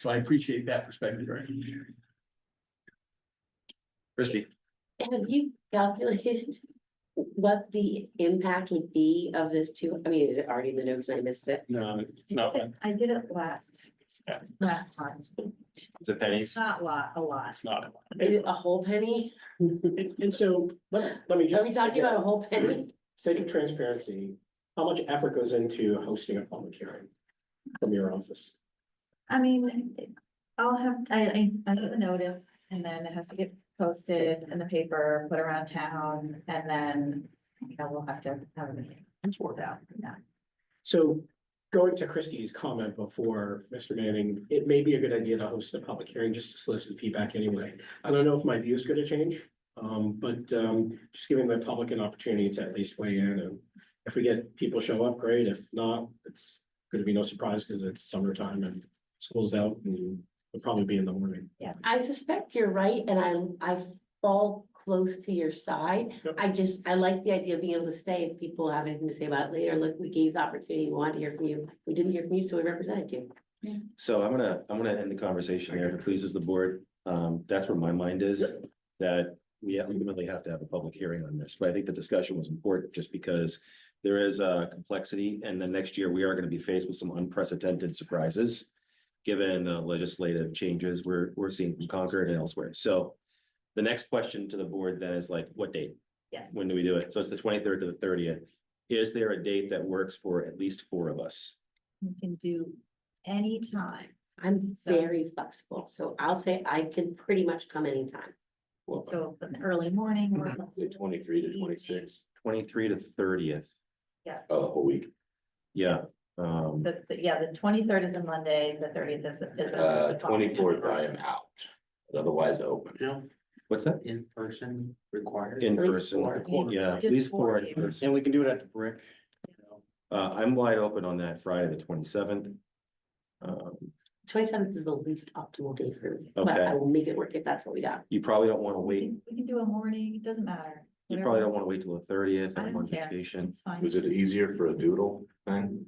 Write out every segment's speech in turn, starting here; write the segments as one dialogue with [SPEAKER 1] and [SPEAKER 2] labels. [SPEAKER 1] So I appreciate that perspective, right? Christie,
[SPEAKER 2] Have you calculated what the impact would be of this two? I mean, is it already in the notes? I missed it.
[SPEAKER 1] no, it's not, one.
[SPEAKER 3] I did it last,
[SPEAKER 1] Yeah.
[SPEAKER 3] last time.
[SPEAKER 1] it's a
[SPEAKER 3] It's
[SPEAKER 1] pennies,
[SPEAKER 3] not a lot, a lot.
[SPEAKER 1] it's not.
[SPEAKER 2] Is it a whole penny?
[SPEAKER 4] And, and so, let, let me
[SPEAKER 2] Are
[SPEAKER 4] just.
[SPEAKER 2] we talking about a whole penny?
[SPEAKER 4] Sake of transparency, how much effort goes into hosting a public hearing from your office?
[SPEAKER 3] I mean, I'll have, I, I, I get the notice and then it has to get posted in the paper, put around town, and then, you know, we'll have to have a meeting. So, yeah.
[SPEAKER 4] So going to Christie's comment before, Mr. Manning, it may be a good idea to host a public hearing just to solicit feedback anyway. I don't know if my view is gonna change, um, but, um, just giving the public an opportunity to at least weigh in and if we get people show up, great. If not, it's gonna be no surprise because it's summertime and school's out and it'll probably be in the morning.
[SPEAKER 2] I suspect you're right, and I'm, I fall close to your side.
[SPEAKER 4] Yep.
[SPEAKER 2] I just, I like the idea of being able to say, if people have anything to say about it later, look, we gave the opportunity, we wanted to hear from you. We didn't hear from you, so we represented you.
[SPEAKER 5] So I'm gonna, I'm gonna end the conversation there, if it pleases the board, um, that's where my mind is. That we ultimately have to have a public hearing on this, but I think the discussion was important just because. There is a complexity and then next year we are gonna be faced with some unprecedented surprises. Given the legislative changes we're, we're seeing from Concord and elsewhere, so. The next question to the board then is like, what date?
[SPEAKER 3] Yes.
[SPEAKER 5] When do we do it? So it's the twenty-third to the thirtieth. Is there a date that works for at least four of us?
[SPEAKER 3] You can do anytime.
[SPEAKER 2] I'm
[SPEAKER 3] So-
[SPEAKER 2] very flexible, so I'll say I can pretty much come anytime.
[SPEAKER 3] So an early morning. or-
[SPEAKER 6] Twenty-three to twenty-six,
[SPEAKER 5] Twenty-three to thirtieth,
[SPEAKER 6] oh, a whole week,
[SPEAKER 5] yeah, um,
[SPEAKER 3] The, the- yeah, the twenty-third is a Monday, the thirtieth is. is a-
[SPEAKER 6] uh, twenty-fourth, I am out, otherwise open.
[SPEAKER 5] what's that?
[SPEAKER 1] In person required?
[SPEAKER 5] In
[SPEAKER 2] At least
[SPEAKER 5] person,
[SPEAKER 2] four.
[SPEAKER 5] yeah, at
[SPEAKER 3] Just
[SPEAKER 5] least
[SPEAKER 3] four
[SPEAKER 5] four in
[SPEAKER 3] people.
[SPEAKER 5] person.
[SPEAKER 4] And we can do it at the brick.
[SPEAKER 5] Uh, I'm wide open on that Friday, the twenty-seventh. Um,
[SPEAKER 2] Twenty-seventh is the least optimal day for me, but
[SPEAKER 5] Okay.
[SPEAKER 2] I will make it work if that's what we got.
[SPEAKER 5] you probably don't wanna
[SPEAKER 3] We
[SPEAKER 5] wait,
[SPEAKER 3] can- we can do a morning, it doesn't matter.
[SPEAKER 5] you
[SPEAKER 3] Whatever.
[SPEAKER 5] probably don't wanna wait till the thirtieth,
[SPEAKER 3] I
[SPEAKER 5] I'm
[SPEAKER 3] don't
[SPEAKER 5] on
[SPEAKER 3] care.
[SPEAKER 5] vacation.
[SPEAKER 3] It's fine.
[SPEAKER 6] Was it easier for a doodle then?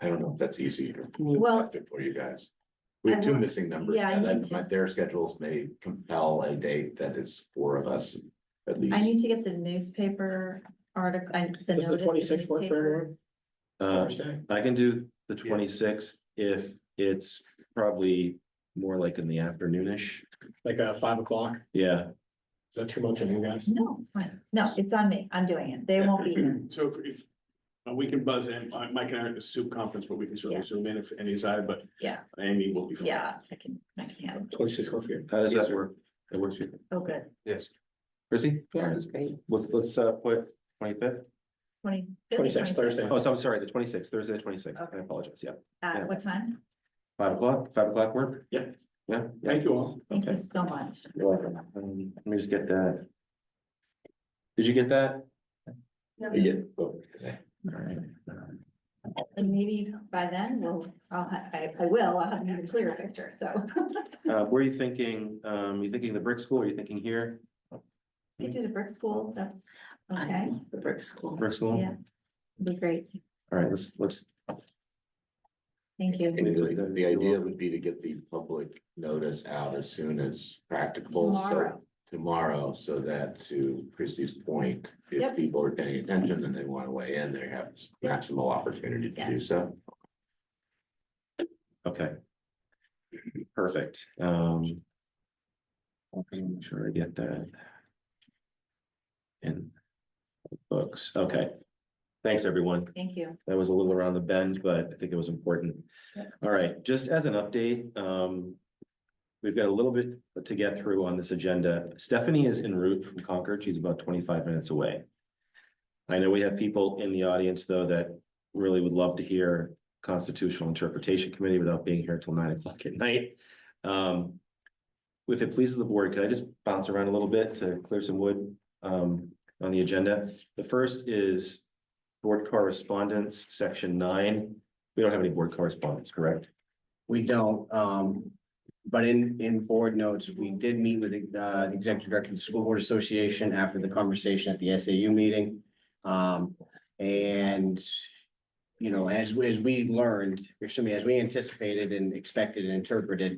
[SPEAKER 6] I don't know if that's easy or
[SPEAKER 3] Well,
[SPEAKER 6] effective for you guys. We have two
[SPEAKER 3] I-
[SPEAKER 6] missing numbers,
[SPEAKER 3] yeah, I
[SPEAKER 6] and then
[SPEAKER 3] need to-
[SPEAKER 6] my, their schedules may compel a date that is four of us at
[SPEAKER 3] I
[SPEAKER 6] least.
[SPEAKER 3] need to get the newspaper article.
[SPEAKER 4] Does the twenty-sixth work for everyone?
[SPEAKER 5] Uh,
[SPEAKER 4] Thursday?
[SPEAKER 5] I can do the twenty-sixth if it's probably more like in the afternoonish,
[SPEAKER 4] Like uh five o'clock,
[SPEAKER 5] yeah,
[SPEAKER 4] is that too much on you guys?
[SPEAKER 3] No, it's fine. No, it's on me. I'm doing it. They won't be here.
[SPEAKER 7] So if- if, uh, we can buzz in, Uh, Mike and I are at the soup conference, but we can certainly
[SPEAKER 3] Yeah.
[SPEAKER 7] zoom in if any side, but
[SPEAKER 3] Yeah,
[SPEAKER 7] Amy will be. fine.
[SPEAKER 3] yeah, I can, I can handle it.
[SPEAKER 4] Twenty-six work for you.
[SPEAKER 5] how does
[SPEAKER 7] Yes,
[SPEAKER 5] that
[SPEAKER 7] sir.
[SPEAKER 5] work? It works, for you?
[SPEAKER 3] Oh, good.
[SPEAKER 7] Yes.
[SPEAKER 5] Chrissy?
[SPEAKER 2] Yeah, that's great.
[SPEAKER 5] Let's, let's, uh, put twenty-fifth,
[SPEAKER 3] Twenty.
[SPEAKER 4] 26th, Thursday.
[SPEAKER 5] oh, so I'm sorry, the twenty-sixth, Thursday, the twenty-sixth, I
[SPEAKER 3] Okay.
[SPEAKER 5] apologize, yeah.
[SPEAKER 3] Uh,
[SPEAKER 5] yeah.
[SPEAKER 3] what time?
[SPEAKER 5] Five o'clock, five o'clock work?
[SPEAKER 7] Yeah.
[SPEAKER 5] Yeah.
[SPEAKER 7] Thank you all.
[SPEAKER 3] Thank you so much.
[SPEAKER 5] You're welcome. Um, Let me just get that. Did you get that?
[SPEAKER 6] Yeah. oh, okay.
[SPEAKER 3] And maybe by then we'll, I'll, ha- I, I will, I'll have an even clearer picture, so.
[SPEAKER 5] Uh, where are you thinking? Um, you thinking the brick school? Are you thinking here?
[SPEAKER 3] You do the brick school, that's, okay,
[SPEAKER 2] Um, The brick school.
[SPEAKER 5] Brick school?
[SPEAKER 3] yeah. Be great.
[SPEAKER 5] All right, let's, let's,
[SPEAKER 3] Thank you.
[SPEAKER 6] And the, the idea would be to get the public notice out as soon as practical, so
[SPEAKER 3] Tomorrow.
[SPEAKER 6] tomorrow, so that to Christie's point, if
[SPEAKER 3] Yep.
[SPEAKER 6] people are paying attention and they want to weigh in, they have maximal opportunity to do
[SPEAKER 3] Yes.
[SPEAKER 6] so.
[SPEAKER 5] okay. Perfect. Um. Okay, make sure I get that. And books, okay. Thanks, everyone.
[SPEAKER 3] Thank you.
[SPEAKER 5] That was a little around the bend, but I think it was important.
[SPEAKER 3] Yep.
[SPEAKER 5] All right, just as an update, um. We've got a little bit to get through on this agenda. Stephanie is en route from Concord. She's about twenty-five minutes away. I know we have people in the audience, though, that really would love to hear Constitutional Interpretation Committee without being here till nine o'clock at night. Um. If it pleases the board, could I just bounce around a little bit to clear some wood um on the agenda? The first is Board correspondence, section nine. We don't have any board correspondence, correct?
[SPEAKER 8] We don't, um, but in, in board notes, we did meet with the, uh, the executive director of the School Board Association after the conversation at the SAU meeting. Um, and, you know, as, as we learned, excuse me, as we anticipated and expected and interpreted,